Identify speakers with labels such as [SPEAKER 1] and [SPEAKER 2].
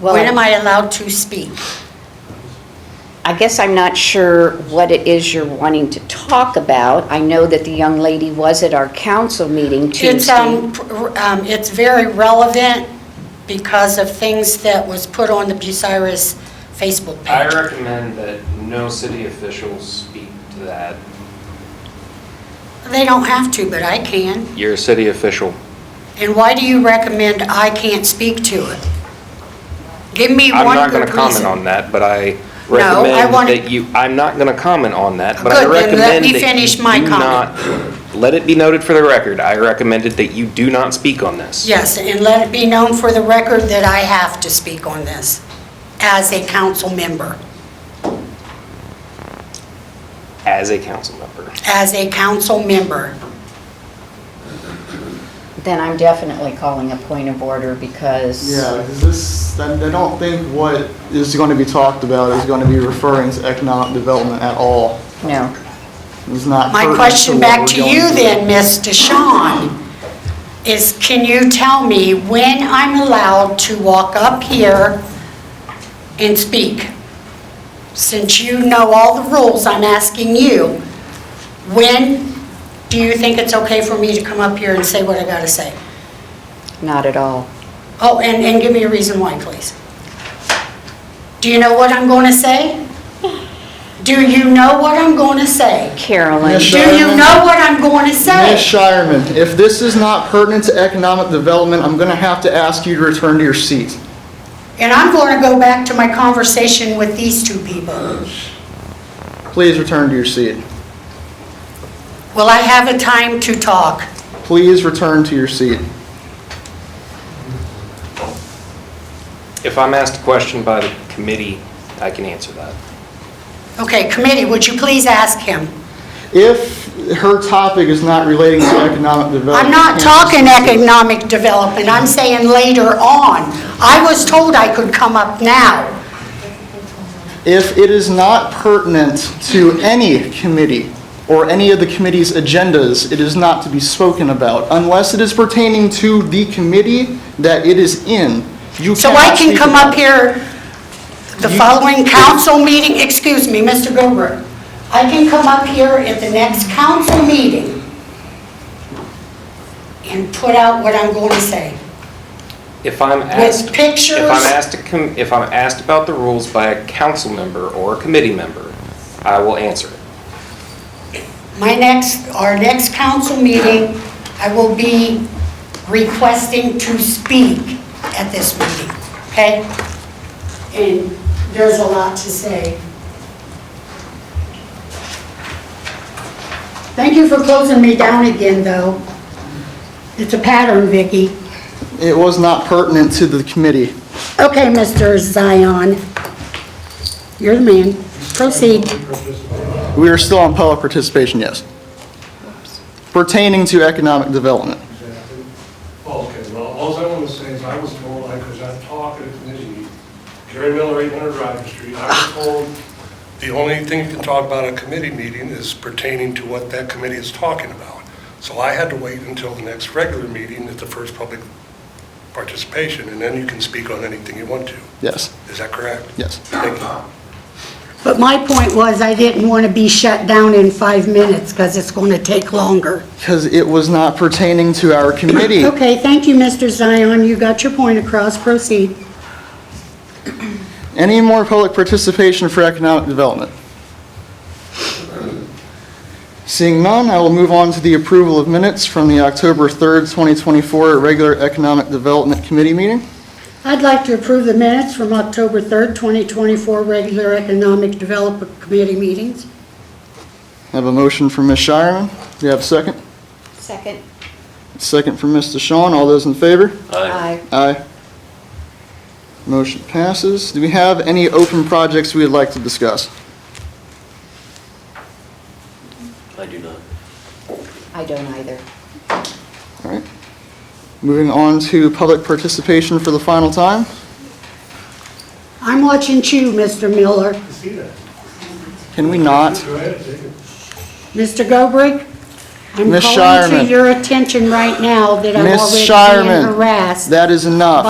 [SPEAKER 1] Well,
[SPEAKER 2] When am I allowed to speak?
[SPEAKER 1] I guess I'm not sure what it is you're wanting to talk about. I know that the young lady was at our council meeting
[SPEAKER 2] It's,
[SPEAKER 1] Tuesday.
[SPEAKER 2] um, pr- um, it's very relevant because of things that was put on the Bucyrus Facebook
[SPEAKER 3] I
[SPEAKER 2] page.
[SPEAKER 3] recommend that no city officials speak to that.
[SPEAKER 2] They don't have to, but I can.
[SPEAKER 3] You're a city official.
[SPEAKER 2] And why do you recommend I can't speak to it? Give me
[SPEAKER 3] I'm
[SPEAKER 2] one
[SPEAKER 3] not going
[SPEAKER 2] good
[SPEAKER 3] to comment on
[SPEAKER 2] reason.
[SPEAKER 3] that, but I
[SPEAKER 2] No, I
[SPEAKER 3] recommend
[SPEAKER 2] want-
[SPEAKER 3] that you, I'm not going to comment on that, but
[SPEAKER 2] Good,
[SPEAKER 3] I
[SPEAKER 2] then
[SPEAKER 3] recommend
[SPEAKER 2] let
[SPEAKER 3] that
[SPEAKER 2] me
[SPEAKER 3] you
[SPEAKER 2] finish my
[SPEAKER 3] do not, let it be noted for the record, I recommended that you do not speak on this.
[SPEAKER 2] Yes, and let it be known for the record that I have to speak on this as a council member.
[SPEAKER 3] As a council member.
[SPEAKER 2] As a council member.
[SPEAKER 1] Then I'm definitely calling a point of order because.
[SPEAKER 4] Yeah, because this, I I don't think what is going to be talked about is going to be referring to economic development at all.
[SPEAKER 1] No.
[SPEAKER 4] It's not
[SPEAKER 2] My
[SPEAKER 4] pertinent
[SPEAKER 2] question
[SPEAKER 4] what
[SPEAKER 2] back
[SPEAKER 4] we're
[SPEAKER 2] to
[SPEAKER 4] going
[SPEAKER 2] you
[SPEAKER 4] through.
[SPEAKER 2] then, Ms. DeShawn, is can you tell me when I'm allowed to walk up here and speak? Since you know all the rules, I'm asking you, when do you think it's okay for me to come up here and say what I gotta say?
[SPEAKER 1] Not at all.
[SPEAKER 2] Oh, and, and give me a reason why, please. Do you know what I'm gonna say? Do you know what I'm gonna say?
[SPEAKER 1] Carolyn,
[SPEAKER 4] Yes,
[SPEAKER 2] Do you know what I'm gonna say?
[SPEAKER 4] Ms. Shireman, if this is not pertinent to economic development, I'm going to have to ask you to return to your seat.
[SPEAKER 2] And I'm going to go back to my conversation with these two people.
[SPEAKER 4] Please return to your seat.
[SPEAKER 2] Will I have a time to talk?
[SPEAKER 4] Please return to your seat.
[SPEAKER 3] If I'm asked a question by the committee, I can answer that.
[SPEAKER 2] Okay, committee, would you please ask him?
[SPEAKER 4] If her topic is not relating to economic development.
[SPEAKER 2] I'm not
[SPEAKER 4] you can't
[SPEAKER 2] talking
[SPEAKER 4] just-
[SPEAKER 2] economic development, I'm saying later on. I was told I could come up now.
[SPEAKER 4] If it is not pertinent to any committee or any of the committee's agendas, it is not to be spoken about unless it is pertaining to the committee that it is in. You
[SPEAKER 2] So I
[SPEAKER 4] cannot
[SPEAKER 2] can
[SPEAKER 4] speak
[SPEAKER 2] come
[SPEAKER 4] about
[SPEAKER 2] up
[SPEAKER 4] it.
[SPEAKER 2] here the
[SPEAKER 4] You-
[SPEAKER 2] following council meeting, excuse me, Mr. Gilbert. I can come up here at the next council meeting and put out what I'm going to say.
[SPEAKER 3] If I'm asked.
[SPEAKER 2] pictures?
[SPEAKER 3] If I'm asked, to com- if I'm asked about the rules by a council member or a committee member, I will answer it.
[SPEAKER 2] My next, our next council meeting, I will be requesting to speak at this meeting, okay? And there's a lot to say. Thank you for closing me down again, though. It's a pattern, Vicki.
[SPEAKER 4] It was not pertinent to the committee.
[SPEAKER 2] Okay, Mr. Zion, you're the man. Proceed.
[SPEAKER 4] We are still on public participation, yes. Pertaining to economic development.
[SPEAKER 5] Exactly. Okay, well, all I want to say is I was told, I was at talk at a committee, Jerry Miller, 800 Rider Street, I was told, the only thing you can talk about at a committee meeting is pertaining to what that committee is talking about. So I had to wait until the next regular meeting at the first public participation, and then you can speak on anything you want to.
[SPEAKER 4] Yes,
[SPEAKER 5] Is that correct?
[SPEAKER 4] yes.
[SPEAKER 5] Thank you.
[SPEAKER 2] But my point was, I didn't want to be shut down in five minutes, because it's going to take longer.
[SPEAKER 4] Because it was not pertaining to our committee.
[SPEAKER 2] Okay, thank you, Mr. Zion, you got your point across, proceed.
[SPEAKER 4] Any more public participation for economic development? Seeing none, I will move on to the approval of minutes from the October 3rd, 2024 regular Economic Development Committee meeting.
[SPEAKER 2] I'd like to approve the minutes from October 3rd, 2024, regular Economic Development Committee meetings.
[SPEAKER 4] I have a motion from Ms. Shireman. Do you have a second?
[SPEAKER 1] second.
[SPEAKER 4] Second from Ms. DeShawn. All those in favor?
[SPEAKER 1] Aye.
[SPEAKER 4] Aye. Motion passes. Do we have any open projects we would like to discuss?
[SPEAKER 6] I do not.
[SPEAKER 1] I don't either.
[SPEAKER 4] All right. Moving on to public participation for the final time.
[SPEAKER 2] I'm watching you, Mr. Miller.
[SPEAKER 5] See that?
[SPEAKER 4] Can we not?
[SPEAKER 5] Go ahead, take it.
[SPEAKER 2] Mr. Gobrick?
[SPEAKER 4] Ms.
[SPEAKER 2] I'm calling
[SPEAKER 4] Shireman.
[SPEAKER 2] to your attention right now that I'm
[SPEAKER 4] Ms.
[SPEAKER 2] already being
[SPEAKER 4] Shireman,
[SPEAKER 2] harassed.
[SPEAKER 4] That is enough.